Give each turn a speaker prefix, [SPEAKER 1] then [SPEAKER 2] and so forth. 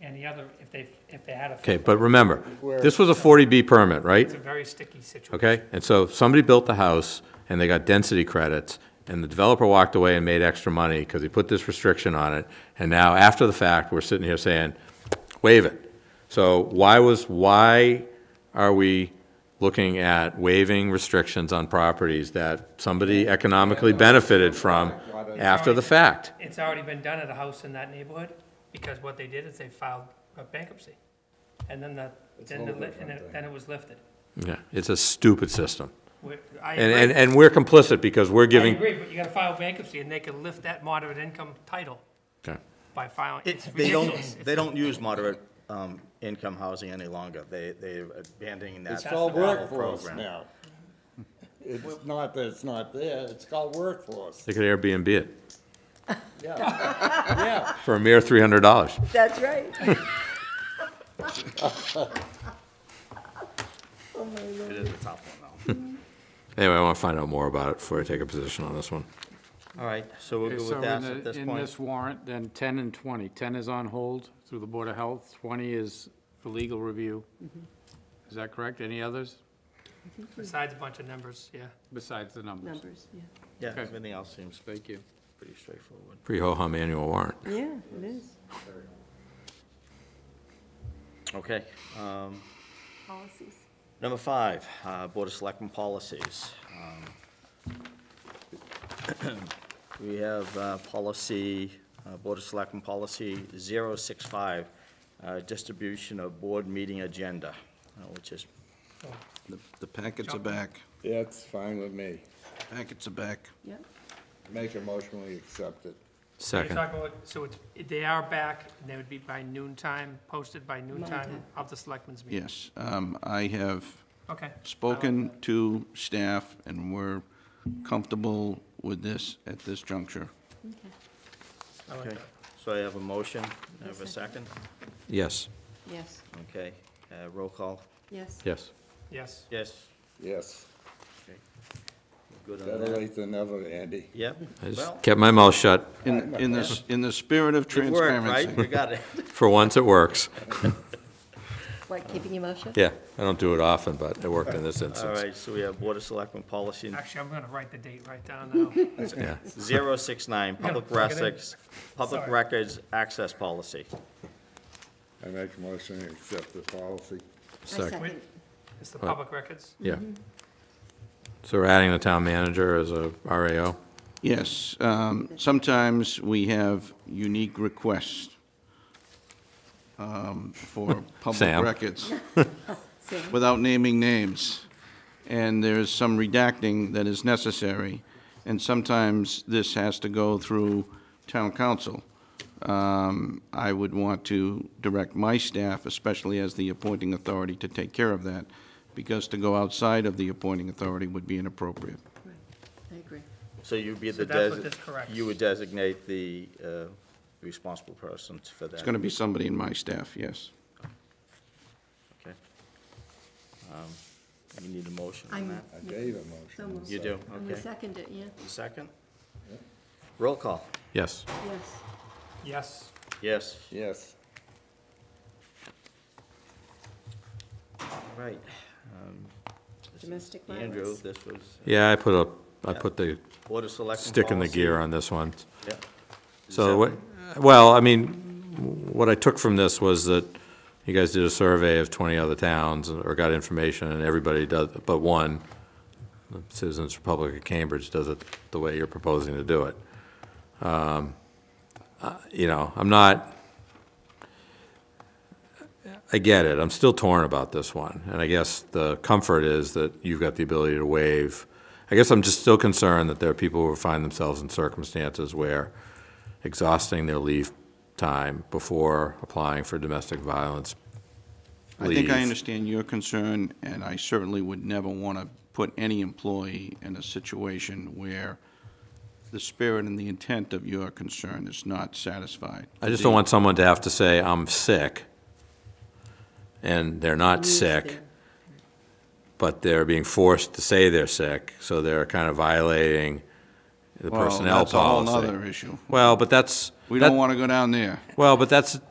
[SPEAKER 1] and the other, if they, if they had a.
[SPEAKER 2] Okay, but remember, this was a 40B permit, right?
[SPEAKER 1] It's a very sticky situation.
[SPEAKER 2] Okay, and so somebody built the house, and they got density credits, and the developer walked away and made extra money because he put this restriction on it, and now, after the fact, we're sitting here saying, waive it. So why was, why are we looking at waiving restrictions on properties that somebody economically benefited from after the fact?
[SPEAKER 1] It's already been done at a house in that neighborhood, because what they did is they filed a bankruptcy. And then the, then the, li- and it- then it was lifted.
[SPEAKER 2] Yeah, it's a stupid system.
[SPEAKER 1] We're- I
[SPEAKER 2] And, and,
[SPEAKER 1] agree,
[SPEAKER 2] and we're complicit because we're
[SPEAKER 1] I
[SPEAKER 2] giving,
[SPEAKER 1] agree, but you gotta file bankruptcy, and they can lift that moderate income title
[SPEAKER 2] Okay.
[SPEAKER 1] by filing, it's
[SPEAKER 3] They don't,
[SPEAKER 1] ridiculous. It's-
[SPEAKER 3] they don't use moderate um, income housing any longer. They, they're abandoning that.
[SPEAKER 4] It's called
[SPEAKER 3] travel
[SPEAKER 4] workforce
[SPEAKER 3] program.
[SPEAKER 4] now. It's not that it's not there, it's called workforce,
[SPEAKER 2] they could Airbnb it
[SPEAKER 4] yeah, yeah.
[SPEAKER 2] for a mere $300.
[SPEAKER 5] That's right.
[SPEAKER 3] It is a tough one, though.
[SPEAKER 2] Anyway, I want to find out more about it before I take a position on this one.
[SPEAKER 3] All right, so we'll
[SPEAKER 6] Okay,
[SPEAKER 3] go
[SPEAKER 6] so
[SPEAKER 3] with that
[SPEAKER 6] in the-
[SPEAKER 3] at this
[SPEAKER 6] In
[SPEAKER 3] point.
[SPEAKER 6] this warrant, then 10 and 20. 10 is on hold through the Board of Health, 20 is for legal review. Is that correct? Any others
[SPEAKER 1] Besides a bunch of numbers, yeah.
[SPEAKER 6] besides the numbers?
[SPEAKER 5] Numbers, yeah.
[SPEAKER 3] Yeah,
[SPEAKER 6] okay.
[SPEAKER 3] everything else seems
[SPEAKER 6] Thank you.
[SPEAKER 3] pretty straightforward.
[SPEAKER 2] Pretty ho-hum annual warrant.
[SPEAKER 5] Yeah, it is.
[SPEAKER 3] Okay, um,
[SPEAKER 5] Policies.
[SPEAKER 3] number five, uh, Board of Selectmen policies. Um, We have uh, policy, uh, Board of Selectmen policy 065, uh, distribution of board meeting agenda, uh, which is
[SPEAKER 7] The- The packets are back.
[SPEAKER 4] That's fine with me.
[SPEAKER 7] Packets are back.
[SPEAKER 5] Yep.
[SPEAKER 4] Make a motion, we accept it.
[SPEAKER 1] You're
[SPEAKER 2] Second.
[SPEAKER 1] talking about- So it's, they are back, and they would be by noon time, posted by noon time of the selectmen's meeting.
[SPEAKER 7] Yes. Um, I have
[SPEAKER 1] Okay.
[SPEAKER 7] spoken to staff, and we're comfortable with this at this juncture.
[SPEAKER 1] I like
[SPEAKER 3] Okay,
[SPEAKER 1] that.
[SPEAKER 3] so I have a motion, I have a second,
[SPEAKER 2] Yes.
[SPEAKER 5] Yes,
[SPEAKER 3] okay, uh, roll call,
[SPEAKER 5] yes.
[SPEAKER 2] Yes.
[SPEAKER 1] Yes.
[SPEAKER 3] yes,
[SPEAKER 4] Yes,
[SPEAKER 3] good on
[SPEAKER 4] better
[SPEAKER 3] that.
[SPEAKER 4] late than never, Andy.
[SPEAKER 3] Yep,
[SPEAKER 2] I
[SPEAKER 3] well,
[SPEAKER 2] just kept my mouth shut.
[SPEAKER 7] In, in the, in the spirit of
[SPEAKER 3] it worked, right, we
[SPEAKER 7] transparency.
[SPEAKER 3] got it.
[SPEAKER 2] For once, it works.
[SPEAKER 5] Like keeping your mouth shut?
[SPEAKER 2] Yeah, I don't do it often, but it worked in this
[SPEAKER 3] All
[SPEAKER 2] instance.
[SPEAKER 3] right, so we have Board of Selectmen Policy
[SPEAKER 1] Actually, I'm gonna write the date right down now.
[SPEAKER 2] Yeah.
[SPEAKER 3] 069, Public
[SPEAKER 1] plug it in.
[SPEAKER 3] Records, Public
[SPEAKER 1] Sorry.
[SPEAKER 3] Records Access Policy.
[SPEAKER 4] I make a motion, we accept the policy.
[SPEAKER 5] I
[SPEAKER 2] Second.
[SPEAKER 5] second.
[SPEAKER 1] It's the public records.
[SPEAKER 2] Yeah. So we're adding the town manager as a RAO?
[SPEAKER 7] Yes, um, sometimes we have unique requests um, for public
[SPEAKER 2] Sam.
[SPEAKER 7] records.
[SPEAKER 5] Same.
[SPEAKER 7] without naming names, and there is some redacting that is necessary, and sometimes this has to go through town council. Um, I would want to direct my staff, especially as the appointing authority, to take care of that, because to go outside of the appointing authority would be inappropriate.
[SPEAKER 5] Right. I agree.
[SPEAKER 3] So you'd be the.
[SPEAKER 1] that's what
[SPEAKER 3] desi-
[SPEAKER 1] this corrects.
[SPEAKER 3] You would designate the uh, responsible person for that.
[SPEAKER 7] It's going to be somebody in my staff, yes.
[SPEAKER 3] Okay. Um, You need a motion on
[SPEAKER 5] I'm,
[SPEAKER 3] that?
[SPEAKER 4] I gave a motion.
[SPEAKER 5] almost.
[SPEAKER 3] You do,
[SPEAKER 5] I'm gonna
[SPEAKER 3] okay.
[SPEAKER 5] second it, yeah,
[SPEAKER 3] Second? Roll call,
[SPEAKER 2] Yes.
[SPEAKER 5] yes.
[SPEAKER 1] Yes.
[SPEAKER 3] yes.
[SPEAKER 4] Yes,
[SPEAKER 3] Right. Um, this is
[SPEAKER 5] Domestic
[SPEAKER 3] Andrew,
[SPEAKER 5] violence.
[SPEAKER 3] this was
[SPEAKER 2] Yeah, I put a, I put the
[SPEAKER 3] Board of Selectmen.
[SPEAKER 2] stick in the
[SPEAKER 3] policy.
[SPEAKER 2] gear on this one.
[SPEAKER 3] Yeah.
[SPEAKER 2] So, what- well, I mean, what I took from this was that you guys did a survey of 20 other towns or got information, and everybody does, but one, the Citizens Republic of Cambridge, does it the way you're proposing to do it. Um, uh, You know, I'm not, I get it, I'm still torn about this one, and I guess the comfort is that you've got the ability to waive. I guess I'm just still concerned that there are people who find themselves in circumstances where exhausting their leave time before applying for domestic violence
[SPEAKER 7] I think I
[SPEAKER 2] leave.
[SPEAKER 7] understand your concern, and I certainly would never want to put any employee in a situation where the spirit and the intent of your concern is not satisfied.
[SPEAKER 2] I just don't want someone to have to say, I'm sick, and they're not
[SPEAKER 5] Use
[SPEAKER 2] sick,
[SPEAKER 5] them.
[SPEAKER 2] but they're being forced to say they're sick, so they're kind of violating the
[SPEAKER 7] Well,
[SPEAKER 2] personnel
[SPEAKER 7] That's a whole
[SPEAKER 2] policy.
[SPEAKER 7] other issue.
[SPEAKER 2] Well, but that's,
[SPEAKER 7] We don't
[SPEAKER 2] that-
[SPEAKER 7] want to go down there.
[SPEAKER 2] well, but that's,